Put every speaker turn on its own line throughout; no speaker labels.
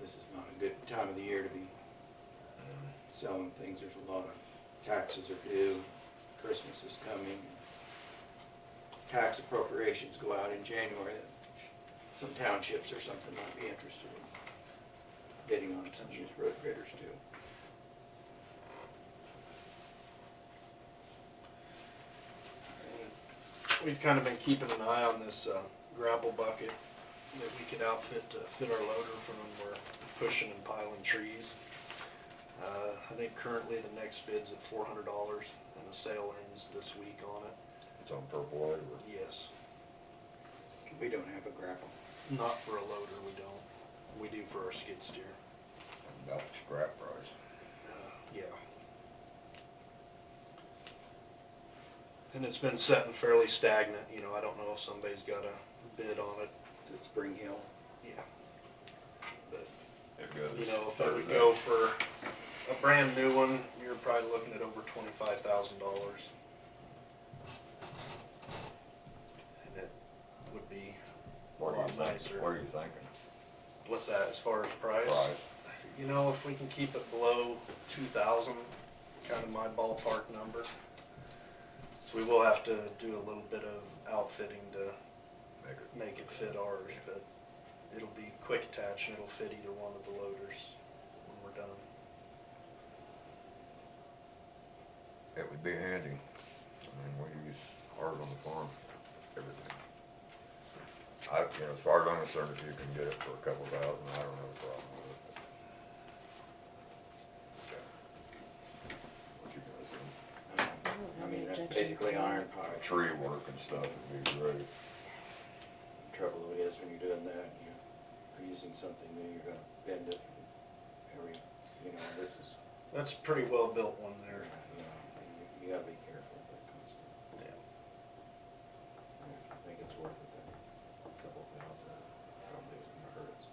this is not a good time of the year to be selling things. There's a lot of taxes are due, Christmas is coming. Tax appropriations go out in January. Some townships or something might be interested in bidding on some of these road bidders too.
We've kind of been keeping an eye on this uh, gravel bucket that we could outfit to fit our loader for when we're pushing and piling trees. Uh, I think currently the next bid's at four hundred dollars and the sale ends this week on it.
It's on purple labor.
Yes,
We don't have a gravel.
not for a loader, we don't. We do for our skid steer.
About the scrap price.
Uh, Yeah. And it's been setting fairly stagnant, you know, I don't know if somebody's got a bid on it,
It's Spring Hill.
yeah. But
It goes.
You know, if I would
Thursday.
go for a brand new one, you're probably looking at over twenty-five thousand dollars. And it would be a
What are you
lot
thinking? What are
nicer.
you thinking?
What's that as far as price?
Price?
You know, if we can keep it below two thousand, kind of my ballpark number. So we will have to do a little bit of outfitting to
Make it-
make it fit ours, but it'll be quick attach and it'll fit either one of the loaders when we're done.
It would be handy. I mean, we use ours on the farm, everything. I, you know, as far as I'm concerned, if you can get it for a couple thousand, I don't have a problem with it. What you gonna do?
Um,
don't
I
have
mean,
any
that's
objections
basically
to that.
iron pipe.
Tree work and stuff would be great.
trouble it is when you're doing that, and you're using something new, you're gonna bend it every, you know, this is,
That's a pretty well built one
you
there.
know, you- you gotta be careful with that kind of stuff. I think it's worth it, then, a couple thousand, probably isn't gonna hurt us.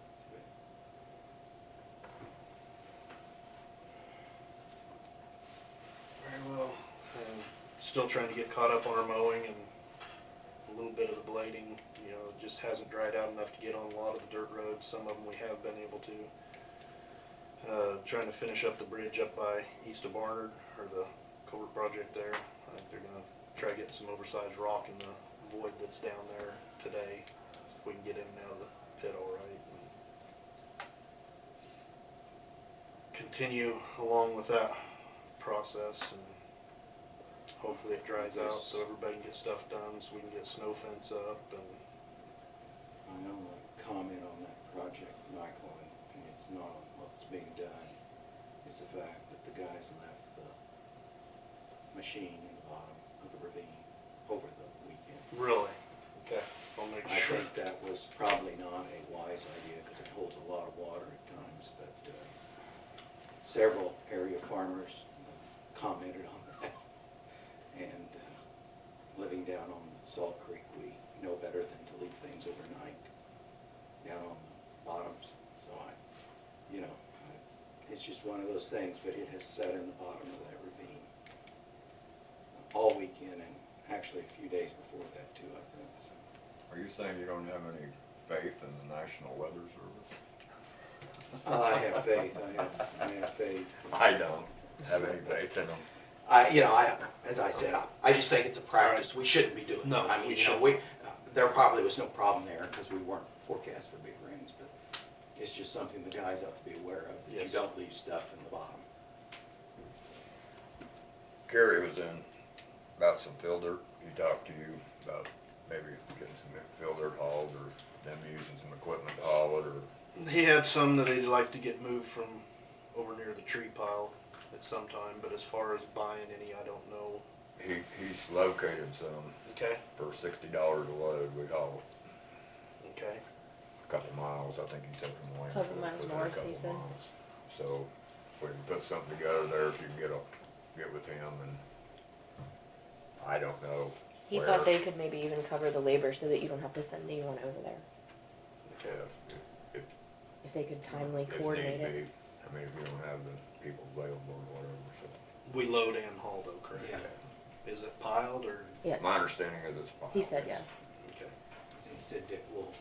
Very well. And still trying to get caught up on our mowing and a little bit of the blading, you know, it just hasn't dried out enough to get on a lot of the dirt roads. Some of them we have been able to. Uh, trying to finish up the bridge up by east of Barnard, or the culvert project there. I think they're gonna try getting some oversized rock in the void that's down there today. If we can get in and out of the pit all right. and continue along with that process and hopefully it dries out so everybody can get stuff done, so we can get snow fence up and,
I know, like, comment on that project, Michael, and, and it's not on what's being done, is the fact that the guys left the machine in the bottom of the ravine over the weekend.
really. Okay. I'll make
I
sure.
think that was probably not a wise idea because it holds a lot of water at times, but uh, several area farmers commented on that. And uh, living down on Salt Creek, we know better than to leave things overnight down on the bottoms. So I, you know, I- it's just one of those things, but it has sat in the bottom of that ravine all weekend and actually a few days before that too, I think, so.
Are you saying you don't have any faith in the National Weather Service?
I have faith, I have, I have faith.
I don't have any faith in them.
I, you know, I, as I said, I, I just think it's a practice we shouldn't be doing.
No,
I mean,
we
you know,
shouldn't.
We, uh, there probably was no problem there because we weren't forecast for big rains, but it's just something the guys have to be aware of, that you
Yes.
don't leave stuff in the bottom.
Gary was in about some field dirt. He talked to you about maybe getting some field dirt hauled or them using some equipment to haul it or
He had some that he'd like to get moved from over near the tree pile at some time, but as far as buying any, I don't know.
he, he's located some
Okay,
for sixty dollars a load. We hauled
okay.
a couple miles, I think he said from Wayne.
Couple miles north, he said.
So if we can put something together there, if you can get a, get with him and I don't know.
He
where-
thought they could maybe even cover the labor so that you don't have to send anyone over there,
Yeah,
Okay.
if- if-
if they could timely
if need
coordinate it.
be. I mean, if you don't have the people available or whatever, so.
We load and haul though, correct?
Yeah.
Is it piled or?
Yes,
My understanding is it's fine.
he said, yeah.
Okay.
And He said Dick Wolf